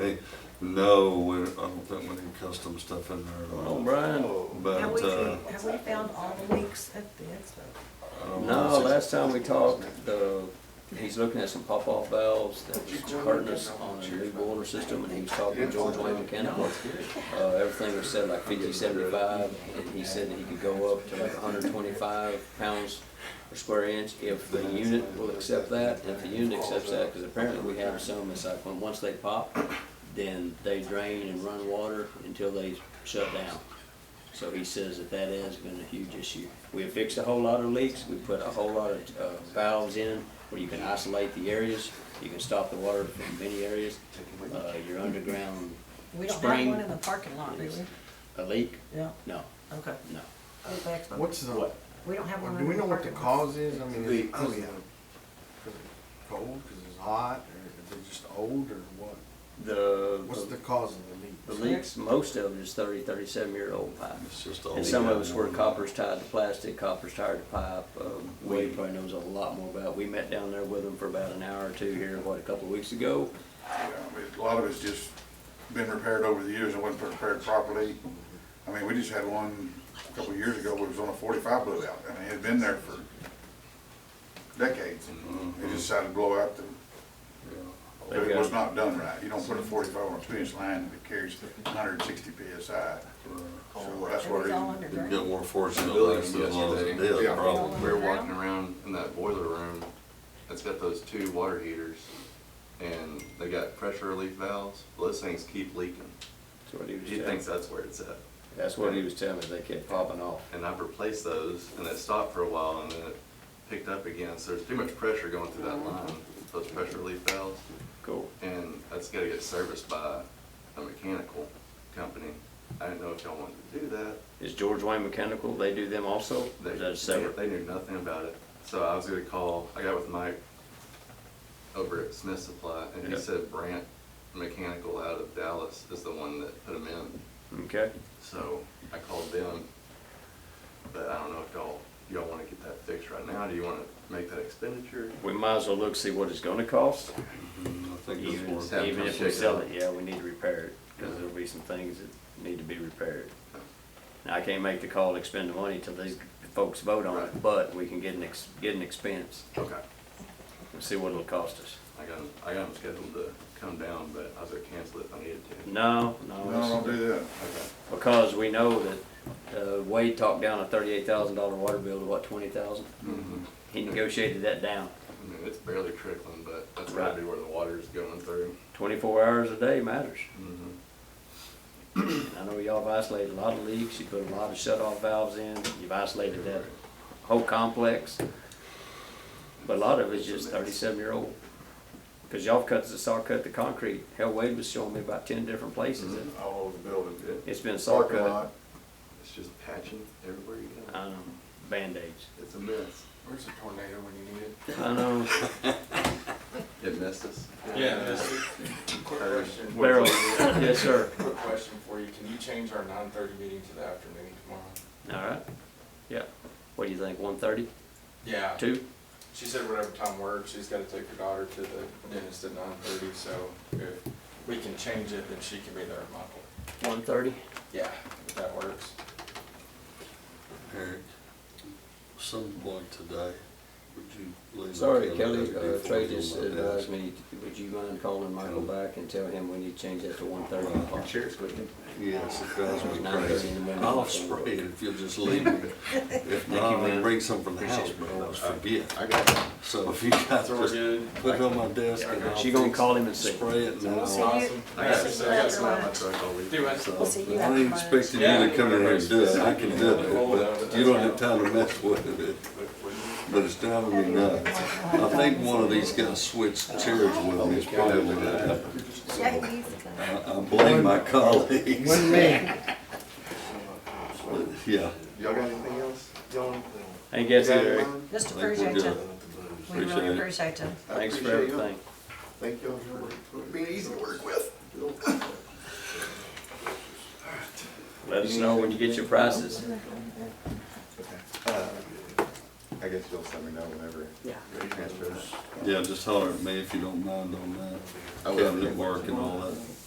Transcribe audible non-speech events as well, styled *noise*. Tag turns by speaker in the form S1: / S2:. S1: they know we're, I don't think we need custom stuff in there at
S2: Oh,
S1: all.
S2: Brian.
S3: Have
S1: But,
S3: we,
S1: uh,
S3: have we found all the leaks at the expo?
S1: I don't
S2: No,
S1: know.
S2: last time we talked, uh, he's looking at some pop-off valves that was hurting us on a new boiler system, and he was talking to George Wayne Mechanical. Uh, everything was set like fifty, seventy-five, and he said that he could go up to like hundred twenty-five pounds per square inch if the unit will accept that, and if the unit accepts that, because apparently we have some, it's like, when, once they pop, then they drain and run water until they shut down. So he says that that has been a huge issue. We have fixed a whole lot of leaks, we put a whole lot of uh, valves in where you can isolate the areas, you can stop the water from many areas. Uh, Your underground
S3: We don't have
S2: Spring.
S3: one in the parking lot, do
S2: is
S3: we?
S2: a leak?
S3: Yeah,
S2: No,
S3: okay.
S2: no.
S3: At the expo.
S4: What's the,
S2: What?
S3: We don't have one
S4: do
S3: in
S4: we
S3: the
S4: know what the
S3: parking lot.
S4: cause is? I mean, is
S5: The-
S4: it 'cause of the- 'cause it's cold, because it's hot, or is it just old, or what? What's the
S2: The,
S4: cause of the leak?
S2: the leaks, most of it is thirty, thirty-seven-year-old pipe.
S1: It's just all.
S2: And some of us were coppers tied to plastic, coppers tied to pipe. Um, Wade probably knows a lot more about. We met down there with him for about an hour or two here, what, a couple of weeks ago?
S5: Yeah, I mean, A lot of it's just been repaired over the years, it wasn't prepared properly. I mean, we just had one a couple of years ago, it was on a forty-five blew out, I mean, it'd been there for decades.
S1: Mm-hmm.
S5: They just decided to blow out the, but it was not done right, you don't put a forty-five on a two-inch line that carries hundred and sixty PSI. So that's
S3: It
S5: what
S3: was
S5: it
S3: all
S5: is.
S1: Didn't
S3: underground.
S1: get more fortunate
S6: Building
S1: last than long as it
S6: yesterday.
S1: did,
S5: Yeah.
S1: probably.
S6: We were walking around in that boiler room that's got those two water heaters and they got pressure relief valves. Those things keep leaking.
S2: That's what he was
S6: He
S2: telling
S6: thinks
S2: me.
S6: that's where it's at.
S2: That's what he was telling me, they kept popping off.
S6: And I've replaced those and it stopped for a while and then it picked up again. So there's too much pressure going through that line, those pressure relief valves.
S2: Cool.
S6: And that's gotta get serviced by a mechanical company. I didn't know if y'all wanted to do that.
S2: Is George Wayne Mechanical, they do them also? Or
S6: They,
S2: is that separate?
S6: they knew nothing about it. So I was gonna call, I got with Mike over at Smith Supply, and he
S2: Yeah.
S6: said Brant Mechanical out of Dallas is the one that put them in.
S2: Okay,
S6: So I called them, but I don't know if y'all, y'all wanna get that fixed right now? Do you wanna make that expenditure?
S2: we might as well look, see what it's gonna cost.
S1: Mm, I think it's
S2: Even
S1: more.
S6: Have
S2: even
S6: them
S2: if we
S6: check it
S2: sell
S6: out.
S2: it, yeah, we need to repair it, because there'll be some things that need to be repaired. Now, I can't make the call to expend the money till these folks vote on it,
S6: Right.
S2: but we can get an ex, get an expense
S6: Okay.
S2: and see what it'll cost us.
S6: I got 'em- I got 'em scheduled to come down, but I was gonna cancel it if I needed to.
S2: No,
S5: No,
S2: no,
S5: don't do that.
S6: Okay.
S2: it's because we know that, uh, Wade talked down a thirty-eight thousand dollar water bill to what, twenty thousand?
S6: Mhm.
S2: He negotiated that down.
S6: I mean, it's barely trickling, but that's gotta
S2: Right.
S6: be where the water's going through.
S2: Twenty-four hours a day matters.
S6: Mhm.
S2: And I know y'all have isolated a lot of leaks, you put a lot of shut-off valves in, you've isolated that whole complex. But a lot of it's just thirty-seven-year-old. Because y'all cut, the saw cut the concrete, hell, Wade was showing me about ten different places,
S6: Mm-hmm.
S2: that
S5: All over the building.
S2: it's been saw
S5: Mm-hmm. Parking
S2: cut.
S5: lot,
S6: It's just patching everywhere you go.
S2: I know,
S5: *laughs*
S2: Band-Aids.
S6: It's a mess.
S5: Where's the tornado when you need it?
S2: I know,
S6: It messed us.
S7: Yeah, that's a quick question,
S2: Barrel. yes, sir,
S7: quick question for you. Can you change our nine thirty meeting to the afternoon tomorrow?
S2: all right, yeah. What do you think, one thirty,
S7: Yeah,
S2: two?
S7: she said whatever time works, she's gotta take her daughter to the dentist at nine thirty, so if we can change it, then she can be there at my point.
S2: One thirty?
S7: Yeah, if that works.
S1: Eric, some point today, would you leave? the
S2: Sorry,
S1: calendar
S2: Kelly, uh,
S1: before
S2: Trey
S1: we go
S2: just uh,
S1: like that?
S2: advised me, would you mind calling Michael back and tell him we need to change that to one thirty?
S6: Cheers, Whitney.
S1: Yes, it drives me
S2: Nine thirty
S1: crazy.
S2: in the morning.
S1: I'll spray it if you'll just
S2: *laughs*
S1: leave me. If not,
S2: you,
S1: I'll
S2: man.
S1: bring some from the house, but I always forget.
S6: I got it.
S1: So if you guys
S7: So we're
S1: just
S7: good?
S1: put it on my desk and I'll.
S2: She gonna
S1: fix
S2: call
S1: it,
S2: him and see.
S1: Spray it and then
S3: So
S1: I'll.
S3: we'll
S7: Awesome.
S3: see you-
S6: I got
S7: Okay,
S6: it.
S7: so I got some-
S6: Not my truck all week.
S7: Do it.
S1: So,
S3: We'll see you
S1: I ain't
S3: after lunch.
S1: expecting you to come in here and do it, I can do it, but you don't have time to mess with it. But it's driving me nuts. I think one of these guys switched chairs with me, it's probably what happened.
S3: Yeah, he needs to come.
S1: I I blame my colleagues,
S4: One man.
S1: yeah.
S6: Y'all got anything else? Y'all?
S2: I guess it, Eric.
S3: Just
S1: I think we're
S3: appreciate you.
S1: good.
S3: We
S1: Appreciate
S3: really
S1: it.
S3: appreciate you.
S2: Thanks for everything.
S6: Thank y'all for being easy to work with.
S2: Let us know when you get your prices.
S6: I guess you'll let me know whenever.
S2: Yeah.
S6: you Transfer.
S1: Yeah, just holler at me if you don't mind on that.
S6: I will.
S1: Cabinet work and all that.